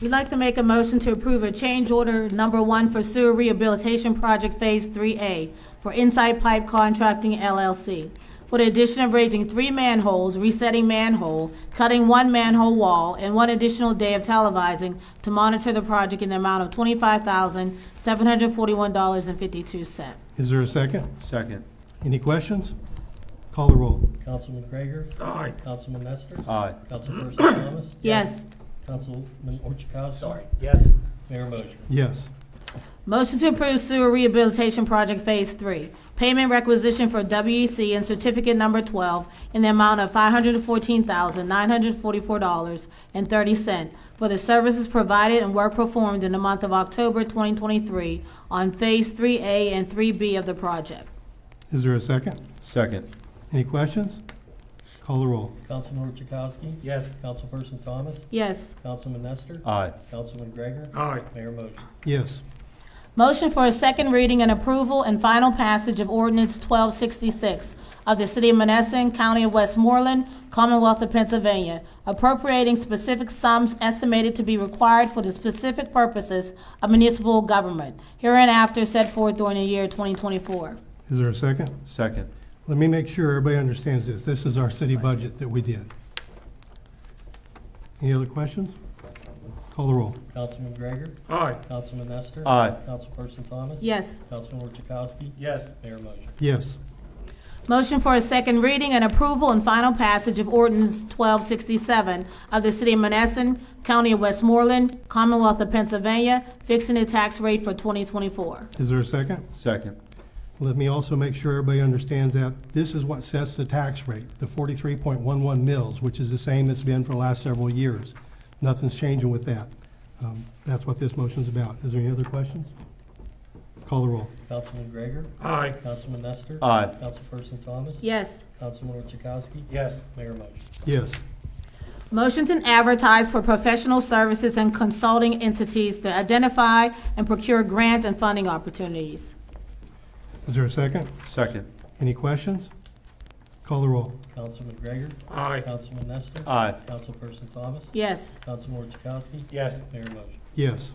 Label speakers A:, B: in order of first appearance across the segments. A: We'd like to make a motion to approve a change order number one for sewer rehabilitation project Phase 3A for Inside Pipe Contracting LLC for the addition of raising three manholes, resetting manhole, cutting one manhole wall, and one additional day of televising to monitor the project in the amount of $25,741.52.
B: Is there a second?
C: Second.
B: Any questions? Call the roll.
D: Councilman Gregor? Aye. Councilman Nestor?
C: Aye.
D: Councilperson Thomas?
A: Yes.
D: Councilman Orchakowski? Sorry.
E: yes,
D: Mayor Mosher?
B: Yes.
A: Motion to approve sewer rehabilitation project Phase 3. Payment requisition for WEC and certificate number 12 in the amount of $514,944.30 for the services provided and work performed in the month of October 2023 on Phase 3A and 3B of the project.
B: Is there a second?
C: Second.
B: Any questions? Call the roll.
D: Councilman Orchakowski?
E: yes,
D: Councilperson Thomas?
A: Yes.
D: Councilman Nestor?
C: Aye.
D: Councilman Gregor?
E: Aye.
D: Mayor Mosher?
B: Yes.
A: Motion for a second reading and approval and final passage of ordinance 1266 of the City of Monessen, County of Westmoreland, Commonwealth of Pennsylvania, appropriating specific sums estimated to be required for the specific purposes of municipal government, hereinafter set forth during the year 2024.
B: Is there a second?
C: Second.
B: Let me make sure everybody understands this. This is our city budget that we did. Any other questions? Call the roll.
D: Councilman Gregor?
E: aye,
D: Councilman Nestor?
C: Aye.
D: Councilperson Thomas?
A: Yes.
D: Councilman Orchakowski?
E: yes,
D: Mayor Mosher?
B: Yes.
A: Motion for a second reading and approval and final passage of ordinance 1267 of the City of Monessen, County of Westmoreland, Commonwealth of Pennsylvania, fixing the tax rate for 2024.
B: Is there a second?
C: Second.
B: Let me also make sure everybody understands that this is what sets the tax rate, the forty-three point one-one mills, which is the same it's been for the last several years. Nothing's changing with that. Um, That's what this motion's about. Is there any other questions? Call the roll.
D: Councilman Gregor?
E: aye,
D: Councilman Nestor?
C: Aye.
D: Councilperson Thomas?
A: Yes.
D: Councilman Orchakowski?
E: yes,
D: Mayor Mosher?
B: Yes.
A: Motion to advertise for professional services and consulting entities to identify and procure grant and funding opportunities.
B: Is there a second?
C: Second.
B: Any questions? Call the roll.
D: Councilman Gregor?
E: aye,
D: Councilman Nestor?
C: Aye.
D: Councilperson Thomas?
A: Yes.
D: Councilman Orchakowski?
E: yes,
D: Mayor Mosher?
B: Yes.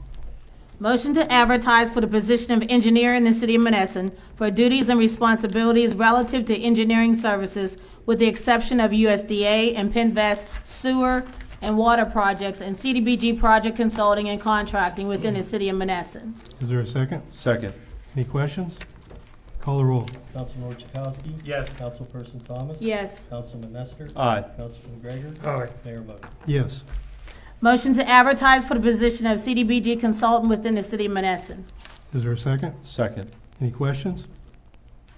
A: Motion to advertise for the position of engineer in the city of Monessen for duties and responsibilities relative to engineering services with the exception of USDA and Pinvest sewer and water projects and CDBG project consulting and contracting within the city of Monessen.
B: Is there a second?
C: Second.
B: Any questions? Call the roll.
D: Councilman Orchakowski?
E: yes,
D: Councilperson Thomas?
A: Yes.
D: Councilman Nestor?
C: Aye.
D: Councilman Gregor?
E: aye,
D: Mayor Mosher?
B: Yes.
A: Motion to advertise for the position of CDBG consultant within the city of Monessen.
B: Is there a second?
C: Second.
B: Any questions?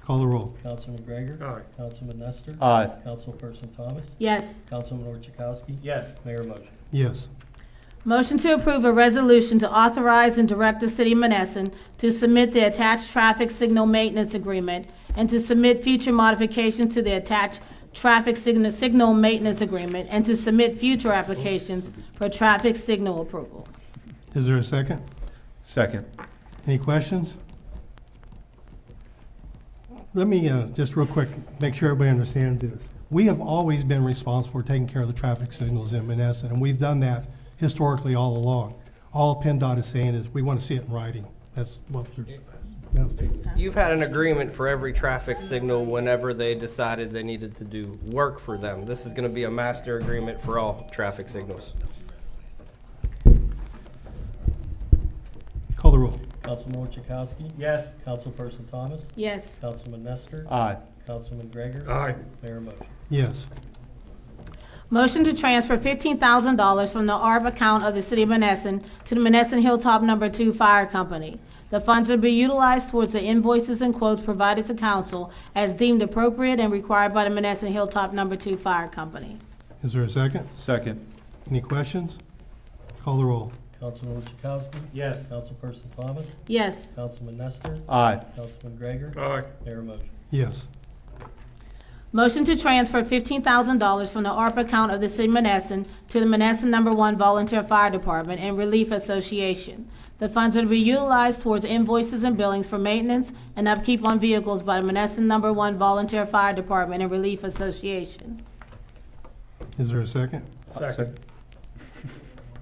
B: Call the roll.
D: Councilman Gregor?
E: aye,
D: Councilman Nestor?
C: Aye.
D: Councilperson Thomas?
A: Yes.
D: Councilman Orchakowski?
E: yes,
D: Mayor Mosher?
B: Yes.
A: Motion to approve a resolution to authorize and direct the city of Monessen to submit the attached traffic signal maintenance agreement and to submit future modifications to the attached traffic signal, signal maintenance agreement and to submit future applications for traffic signal approval.
B: Is there a second?
C: Second.
B: Any questions? Let me, uh, just real quick, make sure everybody understands this. We have always been responsible for taking care of the traffic signals in Menneson, and we've done that historically all along. All PennDOT is saying is, we want to see it in writing. That's what they're, that's
F: You've had an agreement for every traffic signal whenever they decided they needed to do work for them. This is gonna be a master agreement for all traffic signals.
B: Call the roll.
D: Councilman Orchakowski?
E: yes,
D: Councilperson Thomas?
A: Yes.
D: Councilman Nestor?
C: Aye.
D: Councilman Gregor?
E: aye,
D: Mayor Mosher?
B: Yes.
A: Motion to transfer fifteen thousand dollars from the ARP account of the City of Monessen to the Monessen Hilltop Number Two Fire Company. The funds will be utilized towards the invoices and quotes provided to council as deemed appropriate and required by the Monessen Hilltop Number Two Fire Company.
B: Is there a second?
C: Second.
B: Any questions? Call the roll.
D: Councilman Orchakowski?
E: yes,
D: Councilperson Thomas?
A: Yes.
D: Councilman Nestor?
C: Aye.
D: Councilman Gregor?
E: aye,
D: Mayor Mosher?
B: Yes.
A: Motion to transfer fifteen thousand dollars from the ARP account of the City of Monessen to the Monessen Number One Volunteer Fire Department and Relief Association. The funds are to be utilized towards invoices and billings for maintenance and upkeep on vehicles by the Monessen Number One Volunteer Fire Department and Relief Association.
B: Is there a second?
E: second,